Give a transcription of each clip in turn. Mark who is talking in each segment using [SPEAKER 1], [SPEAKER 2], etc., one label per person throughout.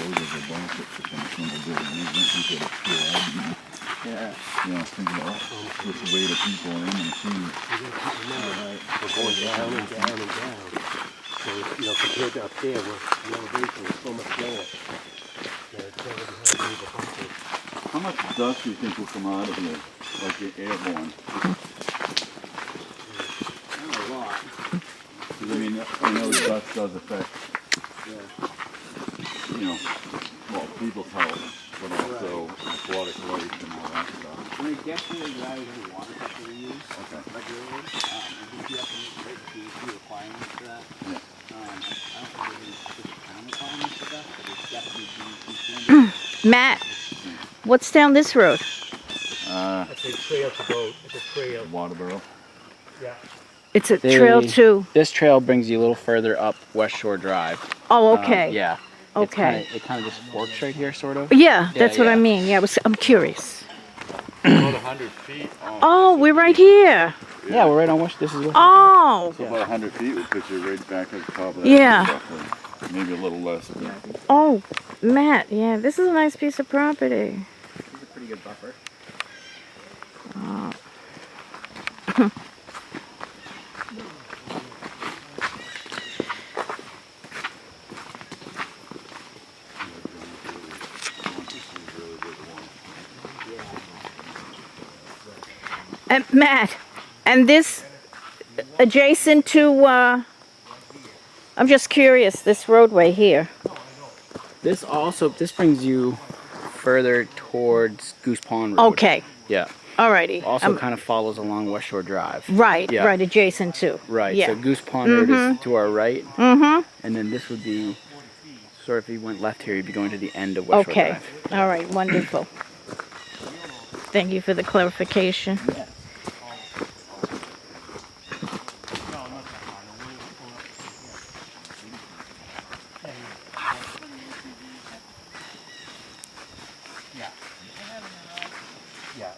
[SPEAKER 1] benefit for some kind of good reason, he could have still had, you know,
[SPEAKER 2] Yeah.
[SPEAKER 1] you know, think about just oh, the weight of people in and see.
[SPEAKER 3] We're going down and down and down. So, you know, compared to up there, where the elevation was so much lower. that it's never gonna be the bumper.
[SPEAKER 1] How much dust do you think will come out of here, like the airborne?
[SPEAKER 2] Not a lot.
[SPEAKER 1] 'Cause I mean, I know dust does affect,
[SPEAKER 2] Yeah.
[SPEAKER 1] you know, well, people's health, but also aquatic life and all that stuff.
[SPEAKER 2] We definitely rather than water that we use
[SPEAKER 1] Okay.
[SPEAKER 2] regularly. Um, I think you have to meet right the DEP requirements for that.
[SPEAKER 1] Yeah.
[SPEAKER 2] Um, I don't think there's any specific town requirements for that, but it's definitely DEP standard.
[SPEAKER 4] Matt, what's down this road?
[SPEAKER 1] Uh,
[SPEAKER 3] That's a trail to go, it's a trail,
[SPEAKER 1] Waterboro.
[SPEAKER 3] yeah.
[SPEAKER 4] It's a
[SPEAKER 5] They-
[SPEAKER 4] trail too.
[SPEAKER 5] This trail brings you a little further up West Shore Drive.
[SPEAKER 4] Oh,
[SPEAKER 5] Um,
[SPEAKER 4] okay.
[SPEAKER 5] yeah. It's
[SPEAKER 4] Okay.
[SPEAKER 5] kinda- it kind of just works right here, sort of.
[SPEAKER 4] Yeah,
[SPEAKER 5] Yeah,
[SPEAKER 4] that's what I
[SPEAKER 5] yeah.
[SPEAKER 4] mean. Yeah, I was, I'm curious.
[SPEAKER 1] About a hundred feet.
[SPEAKER 4] Oh, we're right here.
[SPEAKER 5] Yeah, we're right on West. This is West.
[SPEAKER 4] Oh,
[SPEAKER 1] About a hundred feet would put you right back at the top of that.
[SPEAKER 4] Yeah.
[SPEAKER 1] roughly. Maybe a little less. but-
[SPEAKER 4] oh, Matt. Yeah, this is a nice piece of property.
[SPEAKER 5] This is a pretty good buffer.
[SPEAKER 4] Uh, And Matt, and this adjacent to. Uh, I'm just curious. This roadway here.
[SPEAKER 5] This also this brings you further towards Goose Pond Road.
[SPEAKER 4] Okay. Um,
[SPEAKER 5] Yeah.
[SPEAKER 4] Alrighty.
[SPEAKER 5] Also
[SPEAKER 4] I'm-
[SPEAKER 5] kind of follows along West Shore Drive.
[SPEAKER 4] right.
[SPEAKER 5] yeah.
[SPEAKER 4] Right. Adjacent to.
[SPEAKER 5] Right.
[SPEAKER 4] Yeah.
[SPEAKER 5] So Goose Pond Road is to our right. Mm-hmm. And then this would be sort of if you went left here, you'd be going to the end of West Shore
[SPEAKER 4] Okay,
[SPEAKER 5] Drive.
[SPEAKER 4] all right, wonderful. Thank you for the clarification.
[SPEAKER 3] Yeah.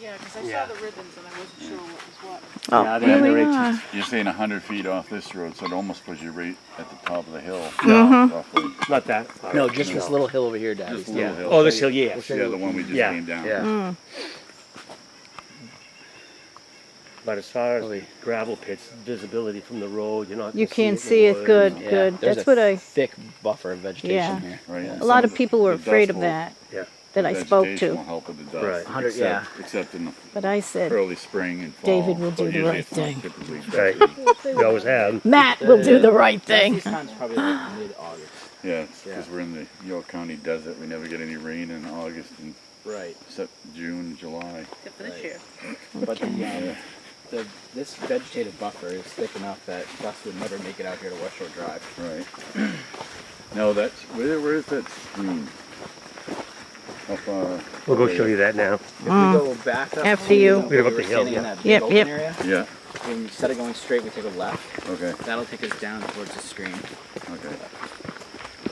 [SPEAKER 6] Yeah, because I
[SPEAKER 3] Yeah.
[SPEAKER 6] saw the ribbons and I wasn't sure what was what.
[SPEAKER 4] Oh, Ah,
[SPEAKER 5] Yeah,
[SPEAKER 4] here
[SPEAKER 5] they're
[SPEAKER 4] we
[SPEAKER 5] underage.
[SPEAKER 4] are.
[SPEAKER 1] You're saying a hundred feet off this road, so it almost puts you right at the top of the hill.
[SPEAKER 4] Uh-huh.
[SPEAKER 1] Roughly.
[SPEAKER 3] Not that.
[SPEAKER 5] No, just this little hill over here, Daddy.
[SPEAKER 1] Just a little hill.
[SPEAKER 3] Oh, this hill, yeah.
[SPEAKER 1] Yeah, the one we just
[SPEAKER 3] Yeah.
[SPEAKER 1] came down.
[SPEAKER 5] Yeah.
[SPEAKER 4] Mm,
[SPEAKER 3] But as far as
[SPEAKER 5] Really.
[SPEAKER 3] gravel pits, visibility from the road, you're not.
[SPEAKER 4] You
[SPEAKER 3] gonna
[SPEAKER 4] can
[SPEAKER 3] in
[SPEAKER 4] see
[SPEAKER 3] the
[SPEAKER 4] it
[SPEAKER 3] woods.
[SPEAKER 4] good,
[SPEAKER 5] Yeah,
[SPEAKER 4] good.
[SPEAKER 5] there's
[SPEAKER 4] That's
[SPEAKER 5] a
[SPEAKER 4] what I,
[SPEAKER 5] thick buffer of vegetation
[SPEAKER 4] Yeah.
[SPEAKER 5] here.
[SPEAKER 1] Right? and
[SPEAKER 4] a lot
[SPEAKER 1] some
[SPEAKER 4] of people were
[SPEAKER 1] the dust
[SPEAKER 4] afraid of
[SPEAKER 1] will-
[SPEAKER 4] that,
[SPEAKER 3] Yeah.
[SPEAKER 4] that I
[SPEAKER 1] the
[SPEAKER 4] spoke
[SPEAKER 1] vegetation will
[SPEAKER 4] to.
[SPEAKER 1] help with the dust.
[SPEAKER 3] Right.
[SPEAKER 5] Hundred-
[SPEAKER 1] except, Except in the
[SPEAKER 4] But I said,
[SPEAKER 1] early spring and fall.
[SPEAKER 4] David will do
[SPEAKER 1] but
[SPEAKER 4] the
[SPEAKER 1] usually
[SPEAKER 4] right
[SPEAKER 1] it's not
[SPEAKER 4] thing.
[SPEAKER 1] typically dust.
[SPEAKER 3] Right. We always have.
[SPEAKER 4] Matt will do the right thing.
[SPEAKER 5] This time's probably like mid-August.
[SPEAKER 1] Yeah, because
[SPEAKER 5] Yeah.
[SPEAKER 1] we're in the York County desert. We never get any rain in August and
[SPEAKER 5] Right.
[SPEAKER 1] except June, July.
[SPEAKER 6] Except for this year.
[SPEAKER 5] But the, um, the, this vegetative buffer is thick enough that dust would never make it out here to West Shore Drive.
[SPEAKER 1] Right. No, that's where. Where is that stream? How far?
[SPEAKER 3] We'll go show you that now.
[SPEAKER 5] If we go back up
[SPEAKER 4] After
[SPEAKER 5] to
[SPEAKER 4] you.
[SPEAKER 5] where
[SPEAKER 3] We're up
[SPEAKER 5] were
[SPEAKER 3] the hill,
[SPEAKER 5] standing in
[SPEAKER 3] yeah.
[SPEAKER 5] that big
[SPEAKER 4] Yep,
[SPEAKER 5] open
[SPEAKER 4] yep.
[SPEAKER 5] area,
[SPEAKER 1] Yeah.
[SPEAKER 5] and instead of going straight, we take a left.
[SPEAKER 1] Okay.
[SPEAKER 5] That'll take us down towards the screen.
[SPEAKER 1] Okay.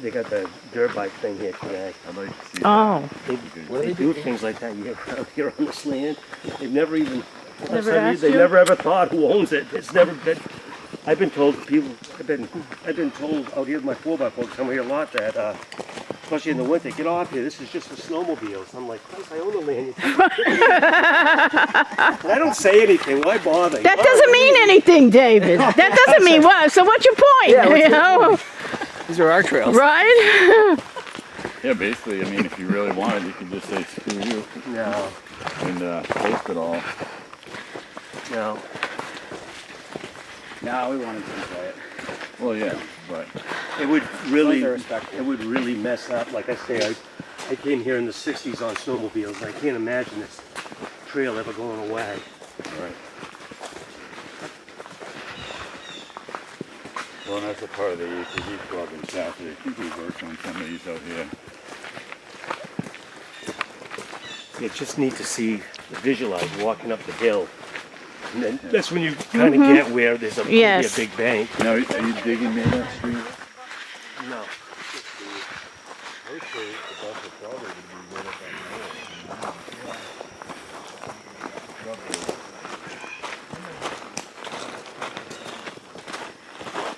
[SPEAKER 3] They got the dirt bike thing here today.
[SPEAKER 1] I'd like to see.
[SPEAKER 4] Oh,
[SPEAKER 3] They,
[SPEAKER 1] What
[SPEAKER 3] they do things like that year round here on this land. They've never even, for
[SPEAKER 4] Never
[SPEAKER 3] some
[SPEAKER 4] asked
[SPEAKER 3] reason, they
[SPEAKER 4] you?
[SPEAKER 3] never ever thought who owns it. It's never been, I've been told that people, I've been, I've been told out here with my four by four, come here a lot that, uh, especially in the winter, get off here, this is just for snowmobiles. I'm like, Christ, I own the land. And I don't say anything, why bother?
[SPEAKER 4] that doesn't mean anything, David. That doesn't mean what, so what's your point, you know?
[SPEAKER 5] These are our trails.
[SPEAKER 4] Right?
[SPEAKER 1] Yeah, basically, I mean, if you really wanted, you could just say screw you
[SPEAKER 3] No,
[SPEAKER 1] and uh, post it all.
[SPEAKER 3] no.
[SPEAKER 5] No, we wanted to enjoy it.
[SPEAKER 1] Well, yeah, but
[SPEAKER 3] It would really,
[SPEAKER 5] Those are respectful.
[SPEAKER 3] it would really mess up. Like I say, I, I came here in the '60s on snowmobiles. I can't imagine this trail ever going away.
[SPEAKER 1] all right. Well, that's a part of the ATV club in Southie. I think we worked on some of these out here.
[SPEAKER 3] You just need to see, visualize walking up the hill, and then that's when you kind of get where there's a,
[SPEAKER 4] Yes.
[SPEAKER 3] a big bank.
[SPEAKER 1] Now, are you digging near that stream?
[SPEAKER 3] No.
[SPEAKER 7] Actually, the buffer probably would be right up on